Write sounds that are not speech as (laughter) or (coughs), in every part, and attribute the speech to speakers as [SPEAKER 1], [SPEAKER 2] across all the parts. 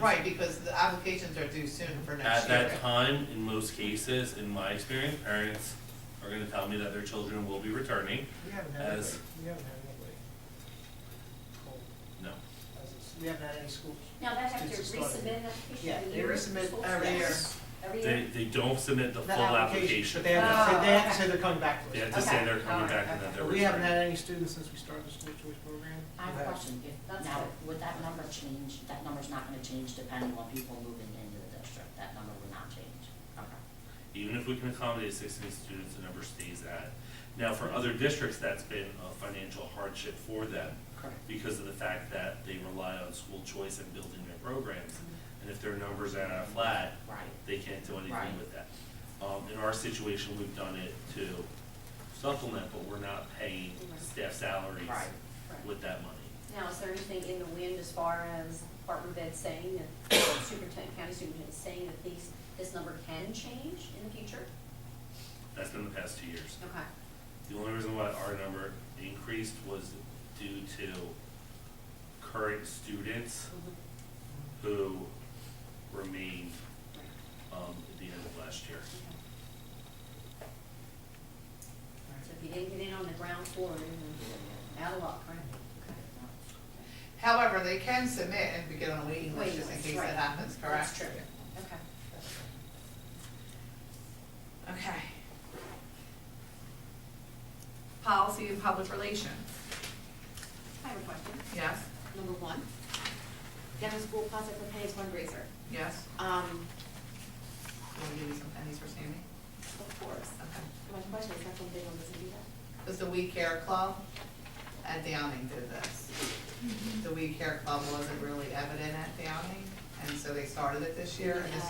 [SPEAKER 1] Right, because the applications are due soon for
[SPEAKER 2] At
[SPEAKER 1] next year.
[SPEAKER 2] that time, in most cases, in my experience, parents are gonna tell me that their children will be returning
[SPEAKER 3] We haven't had anybody,
[SPEAKER 2] as,
[SPEAKER 3] we haven't had anybody called
[SPEAKER 2] no.
[SPEAKER 3] as a, we haven't had any school.
[SPEAKER 4] Now they have to
[SPEAKER 3] Since it started.
[SPEAKER 4] resubmit an application
[SPEAKER 3] Yeah,
[SPEAKER 4] every
[SPEAKER 3] they
[SPEAKER 4] year.
[SPEAKER 3] resubmit
[SPEAKER 4] Full
[SPEAKER 1] every
[SPEAKER 4] steps.
[SPEAKER 1] year.
[SPEAKER 4] Every
[SPEAKER 2] They,
[SPEAKER 4] year?
[SPEAKER 2] they don't submit the
[SPEAKER 3] Not
[SPEAKER 2] full application.
[SPEAKER 3] But they have, to
[SPEAKER 4] Oh,
[SPEAKER 3] say- they have to
[SPEAKER 4] okay.
[SPEAKER 3] say they're coming back
[SPEAKER 2] They
[SPEAKER 3] to
[SPEAKER 2] have
[SPEAKER 3] us.
[SPEAKER 2] to say
[SPEAKER 4] Okay,
[SPEAKER 2] they're coming
[SPEAKER 4] alright,
[SPEAKER 2] back and that they're
[SPEAKER 3] But we haven't had
[SPEAKER 2] returning.
[SPEAKER 3] any students since we started the school choice program.
[SPEAKER 4] I have a
[SPEAKER 3] We've had-
[SPEAKER 4] question, if, now, would that number change, that number's not gonna change depending on people moving into the district, that number would not change? Okay.
[SPEAKER 2] Even if we can accommodate sixteen students, the number stays at. Now, for other districts, that's been a financial hardship for them
[SPEAKER 4] Correct.
[SPEAKER 2] because of the fact that they rely on school choice and building their programs. And if their numbers are flat,
[SPEAKER 4] Right.
[SPEAKER 2] they can't do anything
[SPEAKER 4] Right.
[SPEAKER 2] with that. Um, in our situation, we've done it to supplement, but we're not paying staff salaries
[SPEAKER 4] Right.
[SPEAKER 2] with that money.
[SPEAKER 5] Now, is there anything in the wind as far as Department of Ed saying that, superintendent, county superintendent saying that these, this number can change in the future?
[SPEAKER 2] That's been the past two years.
[SPEAKER 5] Okay.
[SPEAKER 2] The only reason why our number increased was due to current students who remained, um, at the end of last year.
[SPEAKER 5] So if you didn't get in on the ground floor, you're out of luck, right?
[SPEAKER 1] However, they can submit and begin on a waiting list
[SPEAKER 5] Waiting
[SPEAKER 1] just in
[SPEAKER 5] list,
[SPEAKER 1] case
[SPEAKER 5] right.
[SPEAKER 1] that happens, correct?
[SPEAKER 5] That's true. Okay.
[SPEAKER 1] Okay.
[SPEAKER 6] Policy and public relations.
[SPEAKER 5] I have a question.
[SPEAKER 1] Yes,
[SPEAKER 5] Number one, Denver School Positive for Pays fundraiser.
[SPEAKER 1] yes.
[SPEAKER 5] Um,
[SPEAKER 1] Want to give you some pennies for Sandy?
[SPEAKER 5] of course.
[SPEAKER 1] Okay.
[SPEAKER 5] My question is, that's one big one, does it do that?
[SPEAKER 1] Because the We Care Club at Downing did this. The We Care Club wasn't really evident at Downing, and so they started it this year. and this-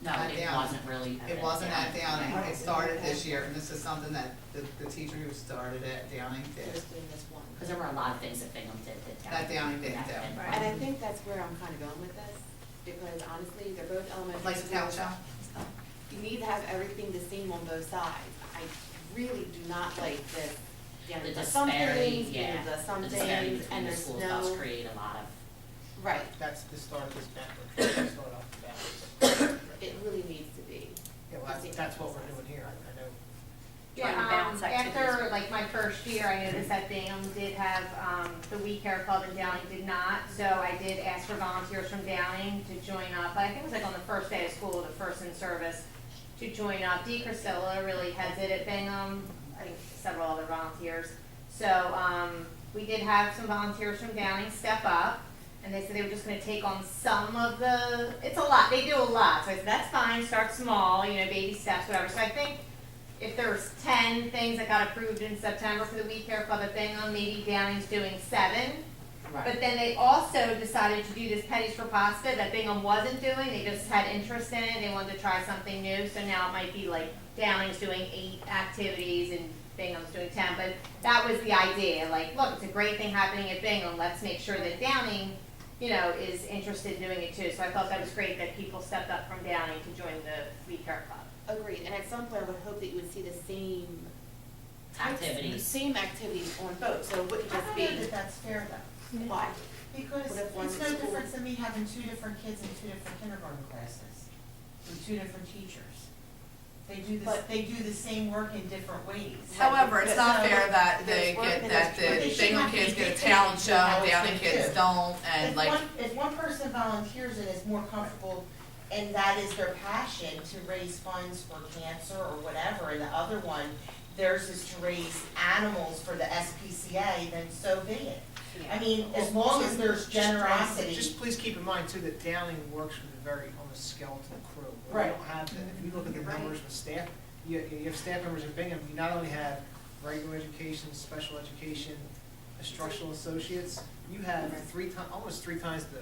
[SPEAKER 4] No,
[SPEAKER 1] At
[SPEAKER 4] it
[SPEAKER 1] Downing.
[SPEAKER 4] wasn't really.
[SPEAKER 1] It
[SPEAKER 4] evident
[SPEAKER 1] wasn't at
[SPEAKER 4] down.
[SPEAKER 1] Downing, it started this year, and this is something that the, the teacher who started it at Downing
[SPEAKER 5] They're
[SPEAKER 1] did.
[SPEAKER 5] just doing this one.
[SPEAKER 4] Cause there were a lot of things that Bingham did that.
[SPEAKER 1] That Downing didn't do.
[SPEAKER 4] that-
[SPEAKER 6] And I think that's where I'm kind of going with this, because honestly, they're both elementary.
[SPEAKER 1] Like the town
[SPEAKER 6] schools.
[SPEAKER 1] shop?
[SPEAKER 6] You need to have everything the same on both sides. I really do not like this, you know,
[SPEAKER 4] The
[SPEAKER 6] the some
[SPEAKER 4] disparity,
[SPEAKER 6] things, you know,
[SPEAKER 4] yeah.
[SPEAKER 6] the some
[SPEAKER 4] The disparity
[SPEAKER 6] things,
[SPEAKER 4] between
[SPEAKER 6] and
[SPEAKER 4] the
[SPEAKER 6] there's
[SPEAKER 4] schools does
[SPEAKER 6] no,
[SPEAKER 4] create a lot of.
[SPEAKER 6] right,
[SPEAKER 3] That's the start of this backward, track, the start off the backwards.
[SPEAKER 4] (coughs)
[SPEAKER 6] it really needs to be.
[SPEAKER 3] Yeah, well, that's- that's what we're doing here, I I know.
[SPEAKER 7] Yeah,
[SPEAKER 5] trying to balance
[SPEAKER 7] um,
[SPEAKER 5] activities
[SPEAKER 7] after
[SPEAKER 5] with-
[SPEAKER 7] like my first year, I noticed that Bingham did have, um, the We Care Club and Downing did not. So I did ask for volunteers from Downing to join up, I think it was like on the first day of school, the first in service, to join up. Dee Crisella really heads it at Bingham, I think several other volunteers. So, um, we did have some volunteers from Downing step up, and they said they were just gonna take on some of the, it's a lot, they do a lot. So I said, that's fine, start small, you know, baby steps, whatever. So I think if there's ten things that got approved in September for the We Care Club at Bingham, maybe Downing's doing seven. But then they also decided to do this Petties for Pasta that Bingham wasn't doing, they just had interest in it, they wanted to try something new, so now it might be like Downing's doing eight activities and Bingham's doing ten, but that was the idea, like, look, it's a great thing happening at Bingham, let's make sure that Downing, you know, is interested in doing it too, so I thought that was great that people stepped up from Downing to join the We Care Club.
[SPEAKER 6] Agreed, and at some point, I would hope that you would see the same. types-
[SPEAKER 4] Activities.
[SPEAKER 6] Same activities on both, so it wouldn't
[SPEAKER 8] I
[SPEAKER 6] just
[SPEAKER 8] don't
[SPEAKER 6] be.
[SPEAKER 8] know that that's fair though,
[SPEAKER 6] Why?
[SPEAKER 8] because
[SPEAKER 6] What if one
[SPEAKER 8] it's no
[SPEAKER 6] school-
[SPEAKER 8] difference than me having two different kids in two different kindergarten classes, with two different teachers. They do this,
[SPEAKER 6] But-
[SPEAKER 8] they do the same work in different ways.
[SPEAKER 9] However, it's not fair that they
[SPEAKER 6] There's
[SPEAKER 9] get,
[SPEAKER 6] work
[SPEAKER 9] that
[SPEAKER 6] and there's-
[SPEAKER 9] the Bingham kids get a talent show, Downey kids don't, and
[SPEAKER 8] If
[SPEAKER 9] like,
[SPEAKER 8] one, if one person volunteers and is more comfortable, and that is their passion, to raise funds for cancer or whatever, and the other one, theirs is to raise animals for the SPCA, then so be it. I mean, as long as there's generosity.
[SPEAKER 3] Just please keep in mind too, that Downing works with a very, on a skeleton crew. We
[SPEAKER 8] Right.
[SPEAKER 3] don't have, that. if you look at the numbers with staff, you, you have staff members in Bingham, you not only have regular education, special education, instructional associates, you have three ti, almost three times the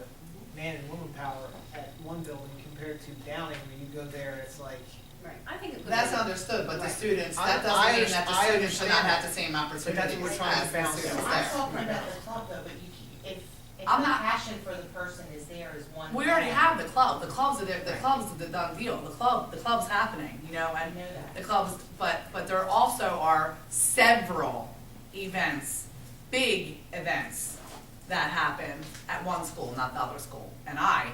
[SPEAKER 3] man and woman power at one building compared to Downing, where you go there, it's like,
[SPEAKER 5] Right, I think it would.
[SPEAKER 1] That's
[SPEAKER 5] be-
[SPEAKER 1] understood, but the
[SPEAKER 5] Right.
[SPEAKER 1] students,
[SPEAKER 3] I-
[SPEAKER 1] that doesn't
[SPEAKER 3] I
[SPEAKER 1] mean that the
[SPEAKER 3] under- I
[SPEAKER 1] students should not
[SPEAKER 3] understand
[SPEAKER 1] have
[SPEAKER 3] that.
[SPEAKER 1] the same
[SPEAKER 3] what we're
[SPEAKER 1] opportunities
[SPEAKER 3] trying to
[SPEAKER 1] as the
[SPEAKER 3] balance
[SPEAKER 1] students
[SPEAKER 3] out.
[SPEAKER 1] there.
[SPEAKER 8] I'm talking about the club though, but you, c- if, if
[SPEAKER 9] I'm
[SPEAKER 8] the
[SPEAKER 9] not-
[SPEAKER 8] passion for the person is there is one.
[SPEAKER 9] we already
[SPEAKER 8] thing.
[SPEAKER 9] have the club, the clubs are there, the club's the done deal, the club, the club's happening, you know,
[SPEAKER 8] I
[SPEAKER 9] and
[SPEAKER 8] know that.
[SPEAKER 9] the clubs, but, but there also are several events, big events that happen at one school, not the other school, and I